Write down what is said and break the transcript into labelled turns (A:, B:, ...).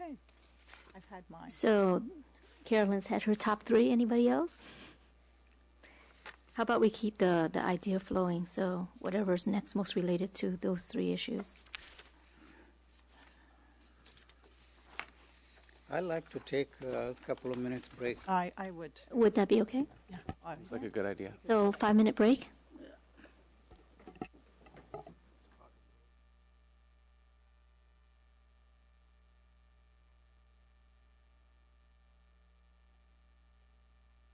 A: had mine.
B: So Carolyn's had her top three. Anybody else? How about we keep the, the idea flowing? So whatever's next most related to those three issues.
C: I'd like to take a couple of minutes break.
A: I, I would.
B: Would that be okay?
A: I-
D: It's like a good idea.
B: So five minute break?